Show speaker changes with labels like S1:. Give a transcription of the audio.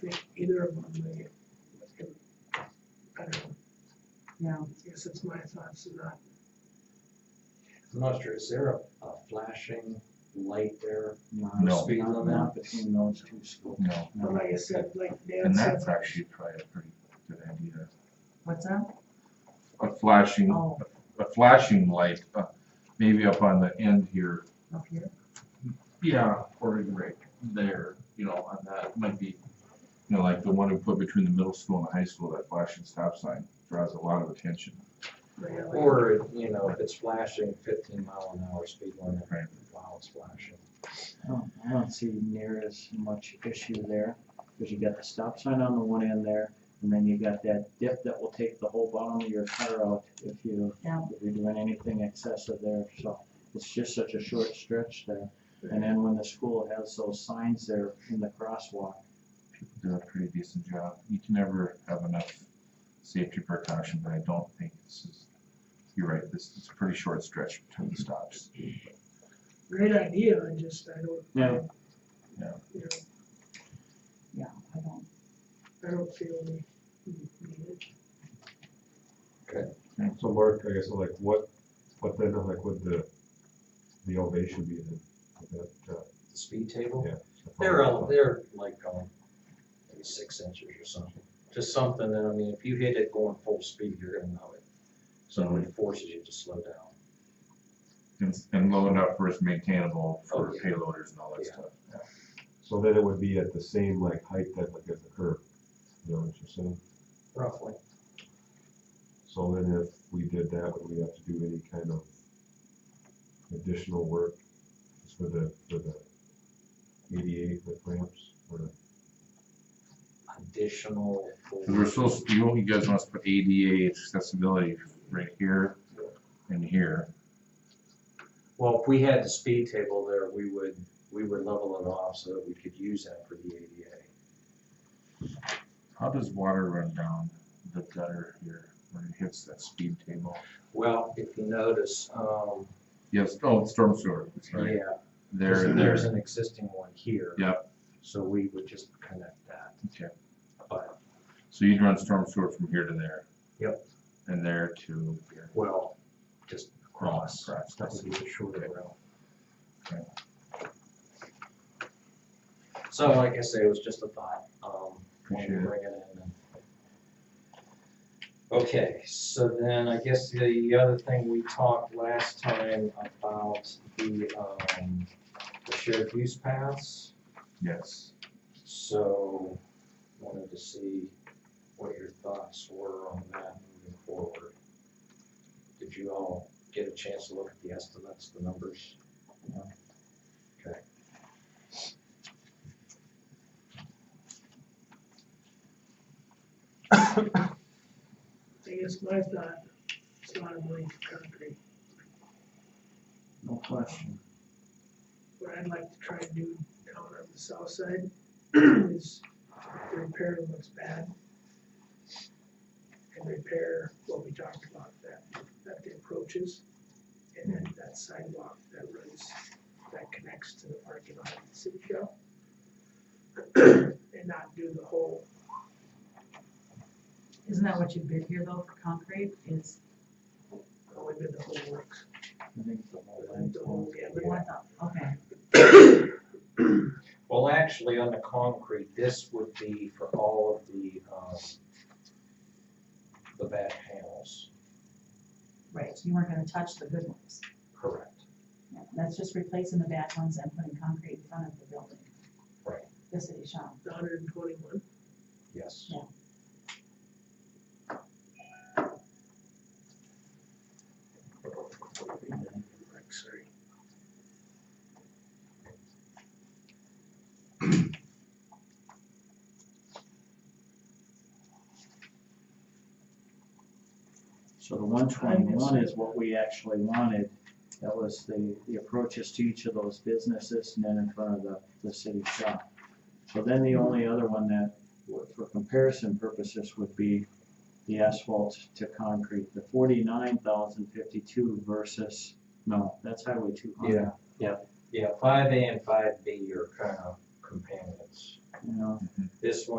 S1: think either of them, they, I don't know,
S2: Yeah,
S1: I guess it's my thoughts, and not,
S3: I'm not sure, is there a, a flashing light there?
S4: No.
S3: Speed
S2: not,
S3: limit?
S2: not between those two schools.
S4: No,
S1: but like I said, like Dan
S4: and
S1: said,
S4: that's actually probably a pretty good idea.
S2: What's that?
S4: A flashing,
S2: Oh.
S4: a flashing light, uh, maybe up on the end here.
S1: Oh,
S2: Up here?
S4: Yeah, or right there, you know, on that, might be, you know, like the one we put between the middle school and the high school, that flashing stop sign draws a lot of attention.
S1: like, I like,
S3: Or, you know, if it's flashing fifteen mile an hour speed limit,
S4: Right.
S3: while it's flashing.
S2: I don't- I don't see near as much issue there, because you got the stop sign on the one end there, and then you got that dip that will take the whole bottom of your car out if you, if you're doing anything excessive there, so it's just such a short stretch there. And then when the school has those signs there in the crosswalk,
S4: People do a pretty decent job. You can never have enough safety precaution, but I don't think this is, you're right, this is a pretty short stretch between the stops.
S1: great idea, I just, I don't.
S2: Yeah.
S4: Yeah.
S1: You know,
S5: Yeah, I don't,
S1: I don't feel we we need it.
S6: So Mark, I guess like what, what then, like would the, the elevation be then? Would that, uh,
S3: The speed table,
S6: Yeah.
S3: they're, all- they're like, um, maybe six inches or something. Just something that, I mean, if you hit it going full speed, you're gonna know it. So it forces you to slow down.
S4: And, and low enough for it's maintainable for
S3: Oh, yeah.
S4: payloaders and all that
S3: Yeah.
S4: stuff.
S6: So then it would be at the same like height that like as the curb, you know what you're saying?
S3: Roughly.
S6: So then if we did that, would we have to do any kind of additional work just for the, for the ADA, the ramps or?
S3: Additional.
S4: Cause we're supposed, you, you guys want us to put ADA accessibility right here and here.
S3: Well, if we had the speed table there, we would, we would level it off so that we could use that for the ADA.
S4: How does water run down the gutter here when it hits that speed table?
S3: Well, if you notice, um,
S4: Yes, oh, storm sewer, it's right
S3: yeah,
S4: there
S3: there's,
S4: and
S3: there's
S4: there.
S3: an existing one here.
S4: Yep.
S3: So we would just connect that,
S4: Okay,
S3: but,
S4: so you'd run storm sewer from here to there.
S3: Yep.
S4: And there to here.
S3: well, just across,
S4: Across,
S3: that would be the shorter
S4: Okay.
S3: route.
S4: Okay.
S3: So like I say, it was just a thought, um, wanted
S4: Appreciate
S3: to
S4: it.
S3: bring it in. and- Okay, so then I guess the other thing we talked last time about the, um, the shared use paths.
S4: Yes,
S3: So wanted to see what your thoughts were on that moving forward. Did you all get a chance to look at the estimates, the numbers? Okay.
S1: I guess my thought, it's not a blank concrete,
S2: no question.
S1: what I'd like to try and do down on the south side is to repair what's bad. And repair what we talked about, that, that the approaches, and then that sidewalk that runs, that connects to the parking lot at the city shop. And not do the whole,
S5: isn't that what you bid here though for concrete is,
S1: only been the whole works,
S2: I think it's the whole thing.
S1: the whole, yeah, but
S5: oh, I thought, okay,
S3: Well, actually, on the concrete, this would be for all of the, um, the bad panels.
S5: right, you weren't gonna touch the good ones.
S3: Correct.
S5: Yeah, That's just replacing the bad ones and putting concrete in front of the building.
S3: Right.
S5: The city shop,
S1: the hundred and twenty-one,
S3: Yes.
S5: Yeah.
S1: like, sorry.
S2: So the one twenty-one is what we actually wanted. That was the, the approaches to each of those businesses and then in front of the, the city shop. So then the only other one that, would- for comparison purposes, would be the asphalt to concrete, the forty-nine thousand fifty-two versus, no, that's highway two hundred.
S3: Yeah, five A and five B are kind of companions.
S2: You know,
S3: This one